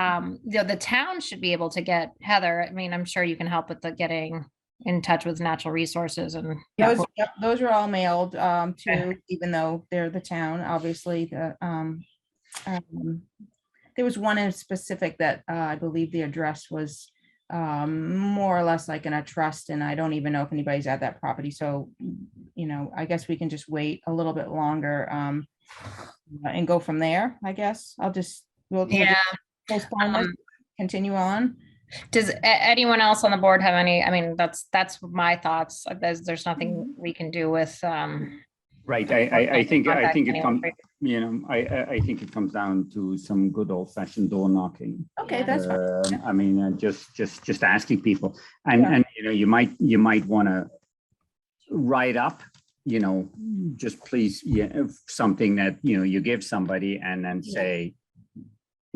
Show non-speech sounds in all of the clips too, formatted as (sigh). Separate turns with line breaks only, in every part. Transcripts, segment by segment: um, you know, the town should be able to get Heather. I mean, I'm sure you can help with the getting in touch with natural resources and
Those, yep, those are all mailed, um, to, even though they're the town, obviously, the, um, um, there was one in specific that, uh, I believe the address was, um, more or less like in a trust, and I don't even know if anybody's at that property, so, you know, I guess we can just wait a little bit longer, um, and go from there, I guess. I'll just, we'll we'll just
yeah.
postpone this,
um,
continue on.
Does a- anyone else on the board have any? I mean, that's that's my thoughts. There's there's nothing we can do with. Um,
Right, I, I, I think, I
contact
think it
anyone.
comes, you know, I, I, I think it comes down to some good old fashioned door knocking.
Okay,
Yeah.
that's fine.
Um, I mean, uh, just, just, just asking people and,
Yeah.
and, you know, you might, you might want to write up, you know, just please, yeah, if something that, you know, you give somebody and then
Yeah.
say,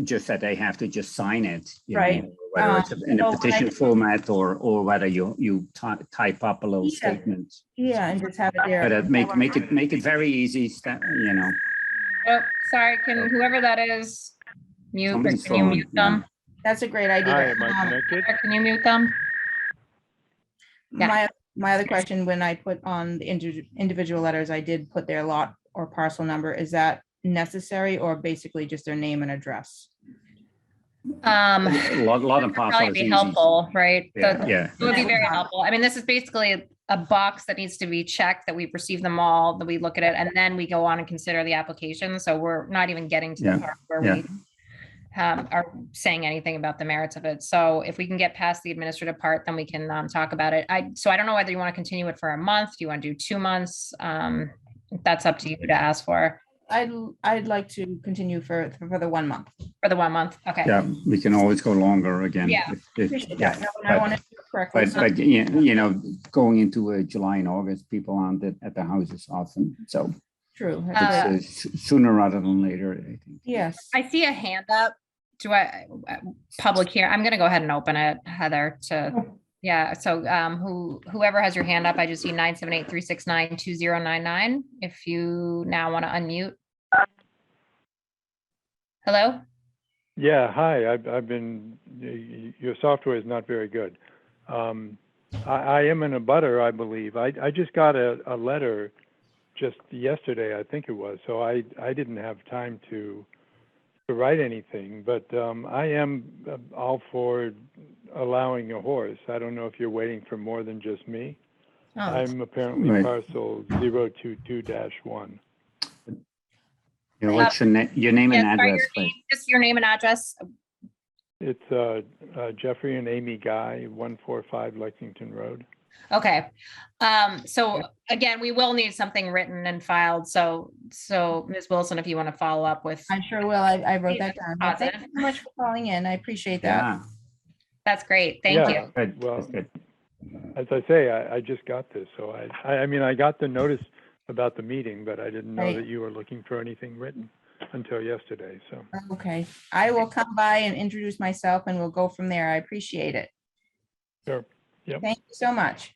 just that they have to just sign it. you know,
Right.
Whether
Um,
it's in
so
a
what I
petition
do-
format or, or whether you, you ty- type up a little
Yeah.
statement.
Yeah, and just have it
But uh,
there.
make, make it, make it very easy, sta- you know.
oh, sorry, can whoever that is mute? or
Somebody's
Can you
phone,
mute them?
That's a great
Hi,
idea.
am I
Um,
connected?
Or Can you mute them? Yeah.
My, my other question, when I put on the indi- individual letters, I did put their lot or parcel number. Is that necessary or basically just their name and address?
Um,
A lot, lot of parcels.
probably be helpful, right? The-
Yeah, yeah.
It would be very helpful. I mean, this is basically a box that needs to be checked, that we've received them all, that we look at it, and then we go on and consider the application. So we're not even getting to the
Yeah,
part where
yeah.
we um, are saying anything about the merits of it. So if we can get past the administrative part, then we can um, talk about it. I, so I don't know whether you want to continue it for a month, do you want to do two months? Um, That's up to you to ask for,
I'd, I'd like to continue for, for the one month.
for the one month. Okay.
Yeah, we can always go longer again.
Yeah.
if- if-
Appreciate
yeah.
that. No, and I want to do it correctly.
But, but, yeah, you know, going into uh, July and August, people aren't at, at the houses often, so
True.
Uh,
it's,
That's
uh, s- sooner rather than later, I think.
it. Yes.
I see a hand up. Do I, uh, public here, I'm gonna go ahead and open it, Heather, to, yeah, so um, who, whoever has your hand up, I just see nine seven eight three six nine two zero nine nine, if you now want to unmute. Hello?
Yeah, hi, I've, I've been, y- y- your software is not very good. Um, I, I am in a butter, I believe. I, I just got a, a letter just yesterday, I think it was, so I, I didn't have time to, to write anything, but, um, I am uh, all for allowing a horse. I don't know if you're waiting for more than just me.
Oh,
I'm apparently
Right.
parcel zero two two dash one.
You know, what's your name, your name and
Uh, yeah, sorry,
address,
your name-
please?
Just your name and address,
It's uh, uh, Jeffrey and Amy Guy, 145 Lexington Road.
okay. Um, so again, we will need something written and filed, so, so Ms. Wilson, if you want to follow up with,
I sure will. I, I wrote that down. But Thank you
Positive.
so much for calling in. I appreciate that.
Yeah,
that's great, thank
Yeah.
you.
good,
Well-
that's good.
As I say, I, I just got this, so I, I, I mean, I got the notice about the meeting, but I didn't know
Right.
that you were looking for anything written until yesterday, so.
Okay. I will come by and introduce myself and we'll go from there. I appreciate it.
Sure. Yep.
Thank you so much.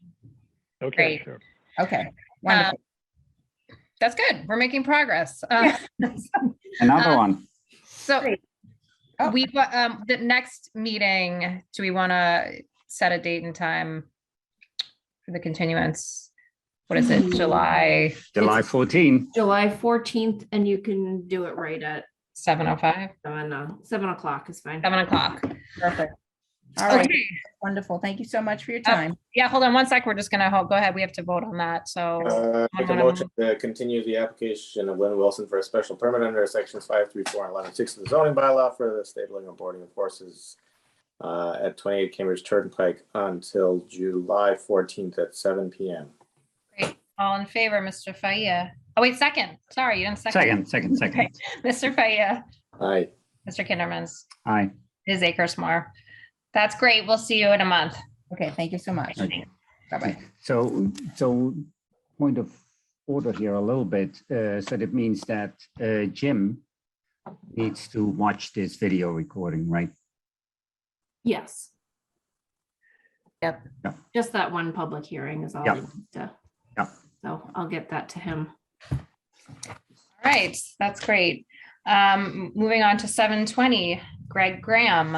Okay,
Great.
sure.
Okay.
Um,
Wonderful.
That's good, we're making progress. Um,
Another
Um,
one,
So
Oh.
we, wa- um, the next meeting, do we want to set a date and time for the continuance? What is it, July
July 14.
July fourteenth, and you can do it right at
seven oh five,
seven, uh, seven o'clock is fine.
seven o'clock?
Perfect. All right.
Okay,
Wonderful. Thank you so much for your
Uh,
time.
yeah, hold on one sec, we're just gonna, ho- go ahead, we have to vote on that, so.
Uh, Make a
Wanna
motion to continue the application of Lynn Wilson for a special permit under sections five, three, four, and eleven, six of the zoning bylaw for the stabling and boarding of horses uh, at twenty-eight Cambridge Turnpike until July fourteenth at seven PM.
great. All in favor, Mr. Faya? Oh, wait, second, sorry, you didn't (laughs) second.
Second, second, second.
Mr. Faya,
Aye.
Mr. Kindermans,
Aye.
Ms. Akers-Moore. That's great, we'll see you in a month.
Okay. Thank you so much.
Okay.
Bye-bye.
So, so point of order here a little bit. uh, So that means that uh, Jim needs to watch this video recording, right?
Yes.
Yep.
Yep.
Just that one public hearing is all. he
Yep.
needs to-
Yep.
So I'll get that to him.
All right, that's great. Um, moving on to seven twenty, Greg Graham.